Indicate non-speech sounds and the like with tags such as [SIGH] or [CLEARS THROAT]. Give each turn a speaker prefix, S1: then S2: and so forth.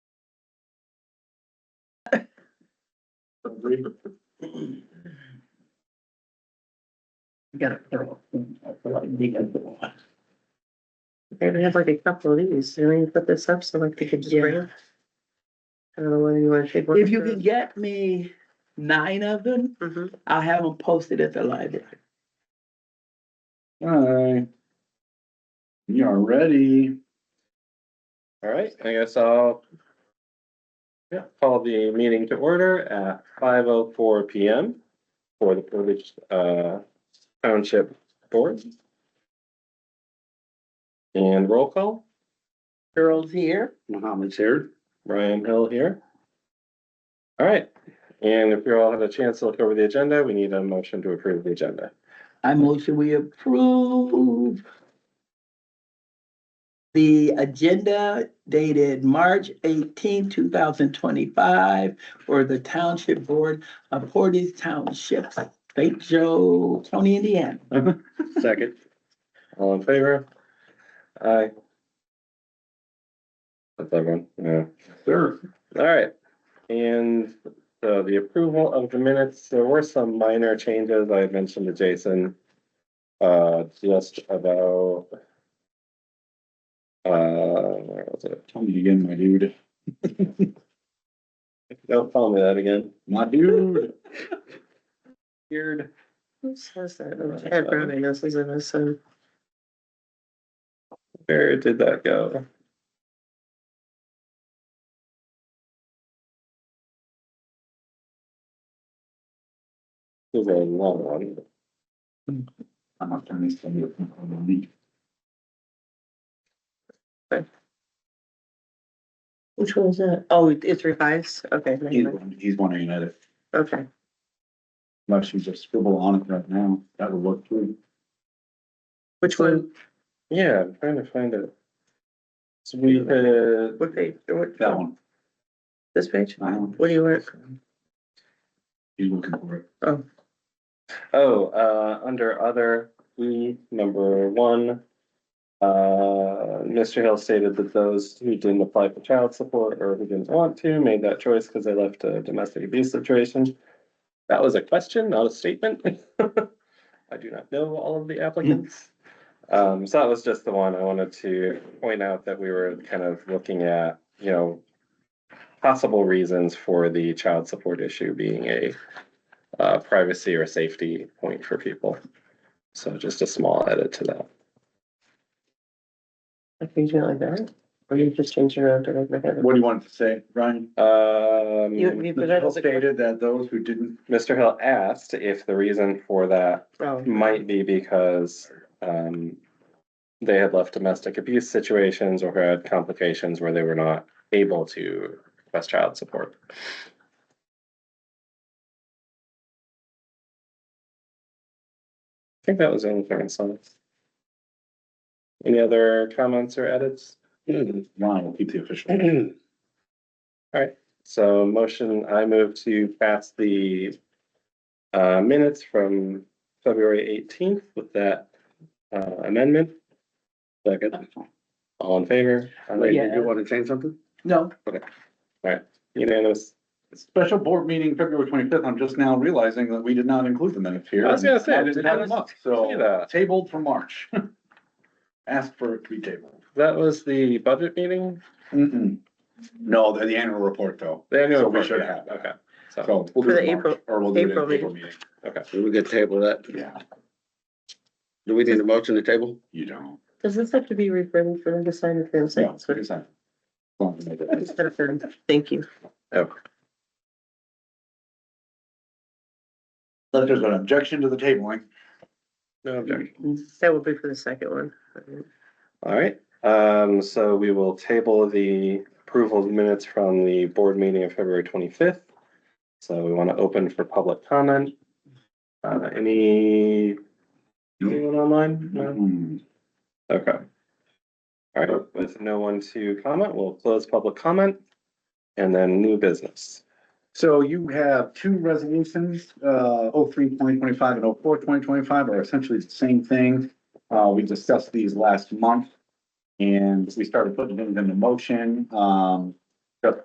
S1: Got it. They're gonna have like a couple of these, and then you put this up, so like they could just bring it. I don't know whether you wanna take. one
S2: If you
S1: or-
S2: can get me nine of them,
S1: Mhm.
S2: I'll have them posted at the library.
S3: Alright. You are ready.
S4: All right, I guess I'll yeah, call the meeting to order at five oh four P M for the Portage uh Township Board. And roll call,
S2: Girls here,
S3: Mohammed's here.
S4: Ryan Hill here. All right, and if you all had a chance to look over the agenda, we need a motion to approve the agenda.
S2: I motion we approve the agenda dated March 18, thousand twenty-five for the Township Board of Portage Township, St. Joe County, Indiana.
S3: Second.
S4: All in favor? Aye. That's everyone, yeah.
S3: Sure.
S4: All right, and so the approval of the minutes, there were some minor changes I had mentioned to Jason. Uh, just about. Uh, where was it?
S3: Tell me again, my dude.
S4: Don't tell me that again.
S3: My dude.
S4: Weird.
S1: Who says that? Oh, Chad Brown, I guess, is in this, um, so.
S4: Where did that go? There's a long one.
S3: I'm not turning this thing up. I'm gonna leave.
S1: Which one is that? Oh, it's revised, okay, never
S3: He's,
S1: mind.
S3: he's wondering at it.
S1: okay.
S3: Unless you just scribble on it right now. That'll look through.
S1: Which one,
S4: Yeah, I'm trying to find it. So we had,
S1: what page, or what,
S3: That one.
S1: this page?
S3: That one.
S1: What do you want?
S3: He's looking for it.
S1: Oh,
S4: oh, uh, under other, we, number one. Uh, Mr. Hill stated that those who didn't apply for child support or who didn't want to made that choice because they left a domestic abuse situation. That was a question, not a statement. [LAUGHS] I do not know all of the applicants. Um, so that was just the one I wanted to point out that we were kind of looking at, you know. Possible reasons for the child support issue being a uh, privacy or safety point for people. So just a small edit to that.
S1: I think you like that, or you just changed it around to make my head.
S3: What do you want it to say, Ryan?
S4: Um,
S1: You- you- But that
S3: Bill
S1: is a-
S3: Stated that those who didn't,
S4: Mr. Hill asked if the reason for that
S1: Oh.
S4: might be because um, they had left domestic abuse situations or had complications where they were not able to request child support. I think that was the only thing I saw. Any other comments or edits?
S3: Ryan will keep the
S1: [CLEARS THROAT]
S3: official.
S4: All right, so motion, I move to pass the uh, minutes from February eighteenth with that uh, amendment. Second, all in favor?
S1: Oh,
S2: Wait, did you
S4: want to change something?
S2: No,
S4: Unanimous.
S3: Special board meeting February twenty-fifth. I'm just now realizing that we did not include the minutes here.
S4: I was gonna say,
S3: I didn't have
S4: how
S3: them up,
S4: See
S3: so
S4: that,
S3: tabled for March. [LAUGHS] Asked for it to be tabled.
S4: that was the budget meeting?
S3: Mm-mm. No, they're the annual report though.
S4: The annual
S3: So we
S4: report,
S3: should
S4: yeah,
S3: have that.
S4: Okay, so,
S3: So we'll do
S1: For
S3: it
S1: the
S3: in March,
S1: April-
S3: or we'll do it in
S1: April
S3: April meeting.
S4: okay.
S5: We could table that.
S3: Yeah,
S5: Do we need a motion to table?
S3: you don't.
S1: Does this have to be rewritten for them to sign if they're
S3: No,
S1: saying?
S3: it's fine. As long as they do it.
S1: Instead of them, thank you.
S3: Unless there's an objection to the tabling.
S4: No objection.
S1: That would be for the second one.
S4: All right, um, so we will table the approval of minutes from the board meeting of February twenty-fifth. So we want to open for public comment. Uh, any? Anyone online? No?
S3: Hmm.
S4: Okay. All right, with no one to comment, we'll close public comment and then new business.
S3: So you have two resolutions, uh, oh three twenty twenty-five and oh four twenty twenty-five are essentially the same thing. Uh, we discussed these last month. And we started putting them into motion, um,